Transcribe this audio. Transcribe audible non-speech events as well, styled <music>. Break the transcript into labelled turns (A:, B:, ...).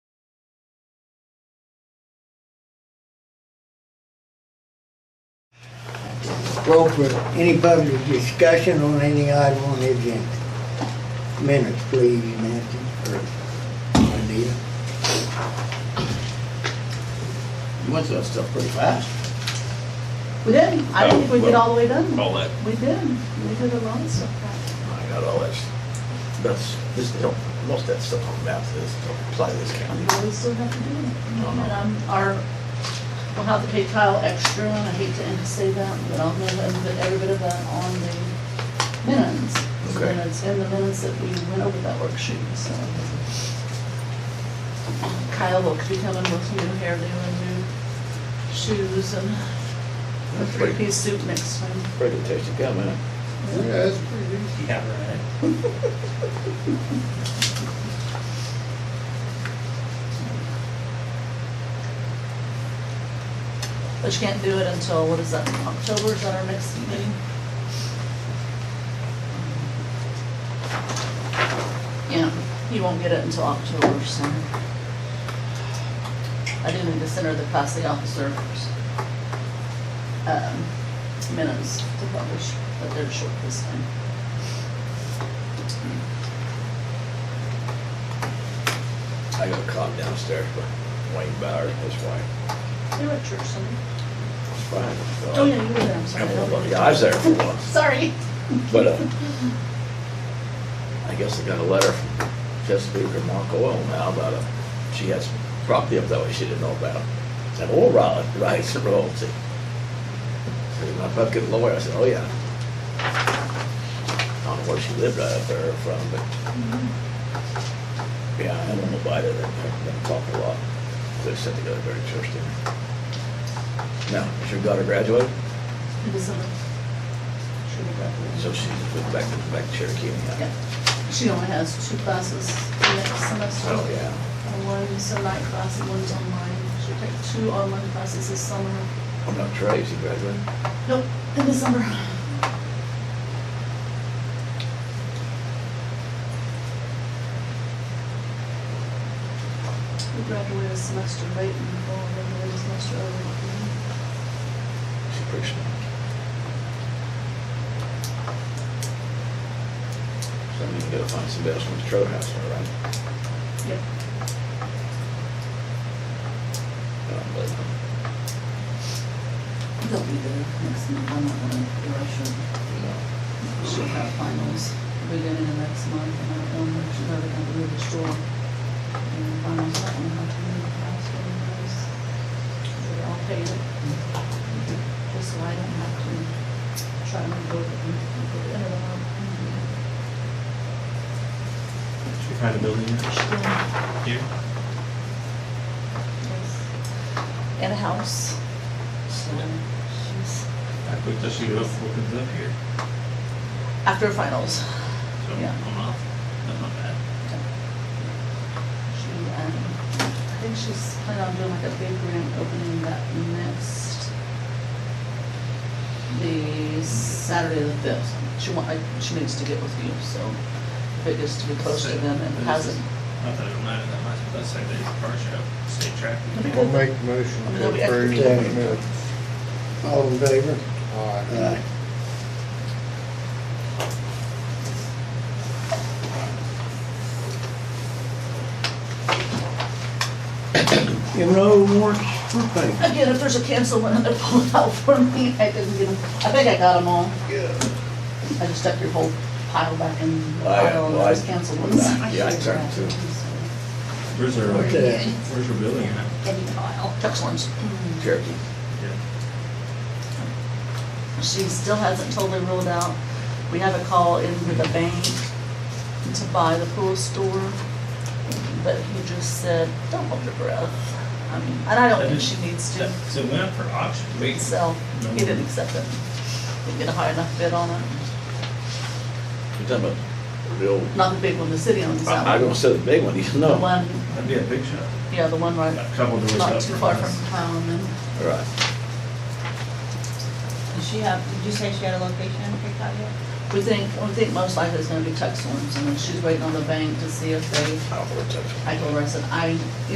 A: go for any public discussion on any item on the agenda. Minutes, please, Nancy, or Anita.
B: You went through that stuff pretty fast.
C: We did. not I didn't think we did all the way done.
D: all that,
C: We did. We did a lot of stuff.
B: I got all that, that's, this, don't- most of that stuff on maps is, don't apply to this county.
C: We always still have to do it. And um, our, we'll have to pay Kyle extra, and I hate to end- say that, but I'll know that that every bit of that on the minutes. So
B: Okay.
C: then it's in the minutes that we went over that worksheet, so. Kyle will be coming with new hairdo and new shoes and a
B: That's pretty-
C: three-piece suit next time.
B: Pretty good taste of gum, isn't it?
E: that's pretty decent.
D: yeah, right.
C: But you can't do it until, what is that, October, is that our next meeting? Yeah, you won't get it until October, so. I do need to send her the past the officer, um, minutes to publish, but they're short this time.
B: I got caught downstairs by Wayne Bauer and his wife.
C: They were at church Sunday.
B: It's fine.
C: Oh, yeah, you were there, I'm sorry.
B: Yeah, I was there for once.
C: Sorry.
B: But, uh, I guess I got a letter from Chesapeake or Mark Oil now about, uh, she has property up that way she didn't know about. Said, oh, right, <laughs> rights and royalty. Said, my fucking lawyer, I said, oh, yeah. I don't know where she lived right up there from, but,
C: Mm-hmm.
B: yeah, I don't know about it, I've been talking a lot. They said they got a very interesting. Now, is your daughter graduated?
C: It is, uh, should have graduated.
B: So she's back, back to Cherokee anyhow.
C: Yeah, She only has two classes next semester.
B: Oh, yeah.
C: And One's a night class and one's online. She'll take two online classes this summer.
B: I'm not crazy, graduate.
C: Nope, in the summer. We graduate a semester late and go on graduate a semester early.
B: She's pretty smart. So I need to go find some best ones, Trout House, all right?
C: Yep.
B: And I'm like,
C: They'll be there next month. I'm not gonna rush her.
B: no.
C: She'll have finals beginning of next month, and I don't know if she's ever gonna move to shore. And finals, I don't know how to move the house when it goes. They're all paid. Just so I don't have to try and go to, go to anyone.
D: What kind of building is it here?
C: And a house. So she's,
D: How quick does she get up, opens up here?
C: after finals,
D: So,
C: Yeah.
D: I'm off. That's not bad.
C: She, um, I think she's planning on doing like a big grand opening that next, the Saturday the fifth. She want, like, she needs to get with you, so if it gets to be close to them and hasn't,
D: Not that it mattered that much, but that's like the car show, state track.
E: I'll make a motion to
C: That'll be after
E: approve
A: ten.
E: the minutes.
A: All in favor?
E: Aye.
A: Aye. You know, warrants for payment.
C: again, if there's a cancel one, they're pulling out for me, I didn't get them, I think I got them all. I just stuck your whole pile back in the
B: I-
C: pile and
B: well, I-
C: those canceled ones.
B: yeah, I turned to-
D: Where's her,
A: Okay.
D: where's her building at?
C: Any pile. Excellent. Mm-hmm.
B: Cherokee.
C: She still hasn't totally ruled out. We have a call in with the bank to buy the pool store, but he just said, don't hold your breath. I mean, and I don't think she needs to uh,
D: So it went up for auction, wait,
C: sell. He didn't accept it. Didn't get a high enough bid on it.
B: You're talking about the old,
C: Not the big one, the city owns that
B: I, I
C: one.
B: don't say the big one, you
C: The
B: know.
C: one,
D: that'd be a big shot.
C: yeah, the one
D: A
C: right,
D: couple doors up.
C: not too far from town and.
B: All right.
F: Does she have, did you say she had a location picked out yet?
C: We think, we think most likely it's gonna be Texas ones, and then she's waiting on the bank to see if they,
B: I don't know what type of-
C: I told her, I said, I,